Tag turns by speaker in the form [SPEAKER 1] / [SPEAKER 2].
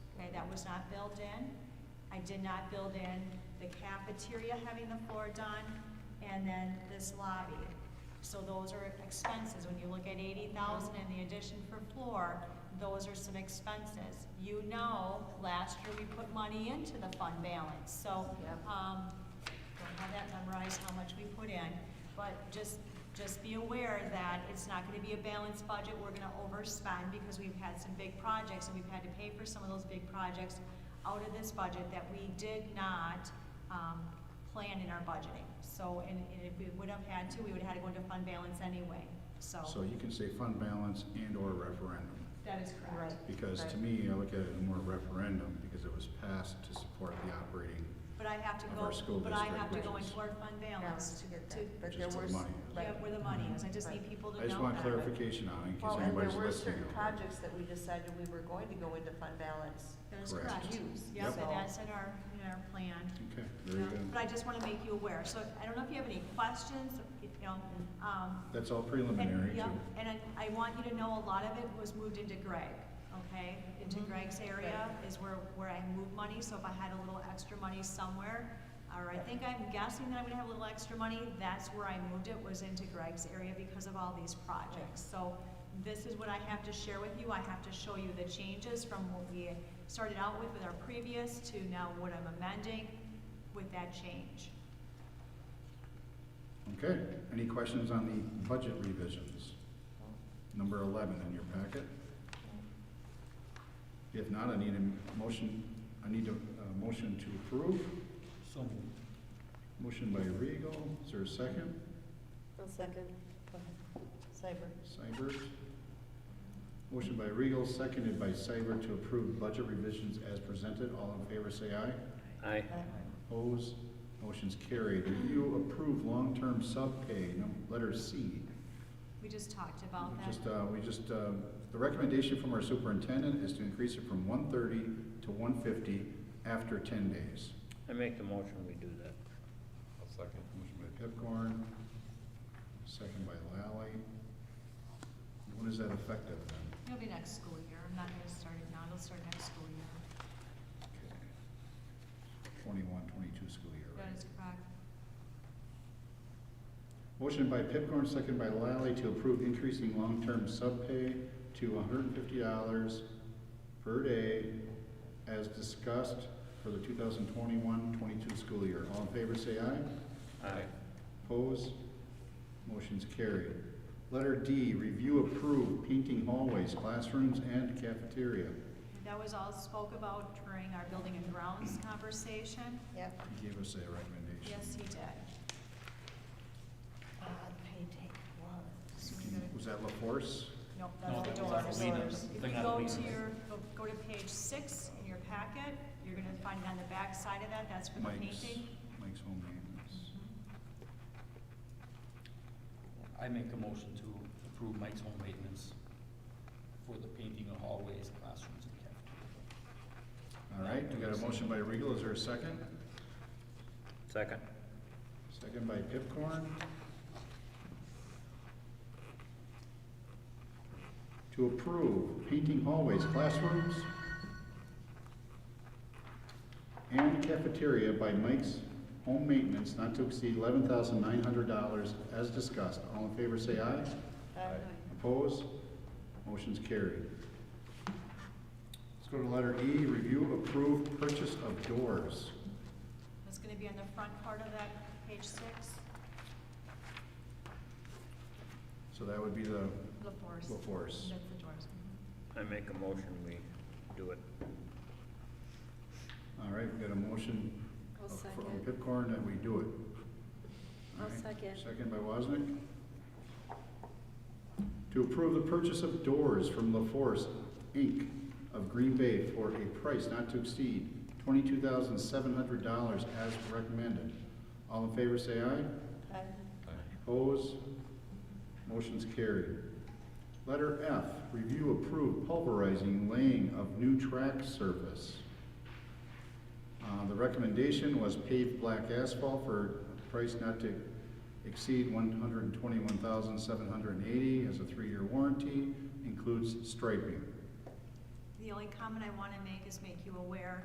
[SPEAKER 1] was not built in. I did not build in the cafeteria having the floor done, and then this lobby. So those are expenses, when you look at eighty thousand and the addition for floor, those are some expenses. You know, last year we put money into the fund balance, so,
[SPEAKER 2] Yep.
[SPEAKER 1] um, don't have that memorized, how much we put in, but just, just be aware that it's not gonna be a balanced budget, we're gonna overspend because we've had some big projects, and we've had to pay for some of those big projects out of this budget that we did not, um, plan in our budgeting. So, and, and if we would have had to, we would have had to go into fund balance anyway,
[SPEAKER 3] So you can say fund balance and/or referendum,
[SPEAKER 1] That is correct.
[SPEAKER 3] because to
[SPEAKER 2] Right.
[SPEAKER 3] me, I look at it more referendum, because it was passed to support the operating,
[SPEAKER 1] But I have to
[SPEAKER 3] Of
[SPEAKER 1] go,
[SPEAKER 3] our school
[SPEAKER 1] but I
[SPEAKER 3] district,
[SPEAKER 1] have to
[SPEAKER 3] which
[SPEAKER 1] go
[SPEAKER 3] is-
[SPEAKER 1] into our fund balance
[SPEAKER 2] Balance to get
[SPEAKER 1] to,
[SPEAKER 2] that, but
[SPEAKER 3] Just
[SPEAKER 2] there
[SPEAKER 3] to
[SPEAKER 2] were.
[SPEAKER 3] the money.
[SPEAKER 1] yeah,
[SPEAKER 2] right.
[SPEAKER 1] where the money is, I just
[SPEAKER 2] Right.
[SPEAKER 1] need people to know
[SPEAKER 3] I
[SPEAKER 1] that.
[SPEAKER 3] just want clarification on it, in case
[SPEAKER 2] Well, and there
[SPEAKER 3] anybody's
[SPEAKER 2] were
[SPEAKER 3] listening.
[SPEAKER 2] certain projects that we decided we were going to go into fund balance.
[SPEAKER 1] That is
[SPEAKER 3] Correct.
[SPEAKER 1] correct.
[SPEAKER 2] Use.
[SPEAKER 1] Yep,
[SPEAKER 2] Yep.
[SPEAKER 1] and that's in our, in our plan.
[SPEAKER 3] Okay, there you
[SPEAKER 1] Yeah. But
[SPEAKER 3] go.
[SPEAKER 1] I just wanna make you aware, so I don't know if you have any questions, if, you know, um,
[SPEAKER 3] That's all
[SPEAKER 1] And,
[SPEAKER 3] preliminary,
[SPEAKER 1] yep,
[SPEAKER 3] too.
[SPEAKER 1] and I, I want you to know a lot of it was moved into Greg, okay? Into
[SPEAKER 3] Mm-hmm.
[SPEAKER 2] Mhm.
[SPEAKER 1] Greg's area is where, where I move money, so if I had a little extra money somewhere, or I think I'm guessing that I'm gonna have a little extra money, that's where I moved it, was into Greg's area because of all these projects. So this is what I have to share with you, I have to show you the changes from what we started out with with our previous to now what I'm amending with that change.
[SPEAKER 3] Okay, any questions on the budget revisions? Number eleven in your packet? If not, I need a motion, I need a, uh motion to approve.
[SPEAKER 4] So moved.
[SPEAKER 3] Motion by Regal, is there a second?
[SPEAKER 2] A second. Cyber.
[SPEAKER 3] Seibert. Motion by Regal, seconded by Seibert to approve budget revisions as presented. All in favor, say aye.
[SPEAKER 4] Aye.
[SPEAKER 3] Opposed? Motion's carried. Review approve long-term subpay, num- letter C.
[SPEAKER 1] We just talked about that.
[SPEAKER 3] Just, uh, we just, uh, the recommendation from our superintendent is to increase it from one thirty to one fifty after ten days.
[SPEAKER 4] I make the motion, we do that.
[SPEAKER 5] I'll second.
[SPEAKER 3] Motion by Pipcorn, second by Lally. When is that effective then?
[SPEAKER 1] It'll be next school year, I'm not gonna start it now, it'll start next school year.
[SPEAKER 3] Twenty-one, twenty-two school year, right?
[SPEAKER 1] That is correct.
[SPEAKER 3] Motion by Pipcorn, second by Lally, to approve increasing long-term subpay to hundred and fifty dollars per day as discussed for the 2021-22 school year. All in favor, say aye.
[SPEAKER 4] Aye.
[SPEAKER 3] Opposed? Motion's carried. Letter D, review approve painting hallways, classrooms, and cafeteria.
[SPEAKER 1] That was all spoke about during our building and grounds conversation.
[SPEAKER 2] Yep.
[SPEAKER 3] He gave us a recommendation.
[SPEAKER 1] Yes, he did.
[SPEAKER 2] Uh, painting was.
[SPEAKER 3] Was that LaForce?
[SPEAKER 1] Nope,
[SPEAKER 4] No,
[SPEAKER 1] that's the
[SPEAKER 4] that was on
[SPEAKER 1] doors.
[SPEAKER 4] Lena.
[SPEAKER 1] If
[SPEAKER 4] Thing
[SPEAKER 1] you
[SPEAKER 4] on
[SPEAKER 1] go
[SPEAKER 4] Lena.
[SPEAKER 1] to your, go- go to page six in your packet, you're gonna find it on the back side of that, that's for the
[SPEAKER 3] Mike's,
[SPEAKER 1] painting.
[SPEAKER 3] Mike's home maintenance.
[SPEAKER 4] I make a motion to approve Mike's home maintenance for the painting of hallways, classrooms, and cafeteria.
[SPEAKER 3] All right, we got a motion by Regal, is there a second?
[SPEAKER 4] Second.
[SPEAKER 3] Second by Pipcorn. To approve painting hallways, classrooms, and cafeteria by Mike's Home Maintenance not to exceed eleven thousand nine hundred dollars as discussed. All in favor, say aye. Opposed? Motion's carried. Let's go to letter E, review approved purchase of doors.
[SPEAKER 1] That's gonna be on the front part of that, page six,
[SPEAKER 3] So that would be the
[SPEAKER 1] LaForce.
[SPEAKER 3] LaForce.
[SPEAKER 1] That's the doors. Mhm.
[SPEAKER 4] I make a motion, we do it.
[SPEAKER 3] All right, we got a motion
[SPEAKER 2] I'll
[SPEAKER 3] of- from
[SPEAKER 2] second.
[SPEAKER 3] Pipcorn that we do it.
[SPEAKER 2] I'll
[SPEAKER 3] All right,
[SPEAKER 2] second.
[SPEAKER 3] Second by Wasnick. To approve the purchase of doors from La Force, Inc. of Green Bay for a price not to exceed twenty-two thousand seven hundred dollars as recommended. All in favor, say aye. Opposed? Motion's carried. Letter F, review approve pulverizing laying of new track surface. Uh, the recommendation was paved black asphalt for a price not to exceed one hundred and twenty-one thousand, seven hundred and eighty, as a three-year warranty, includes striping.
[SPEAKER 1] The only comment I wanna make is make you aware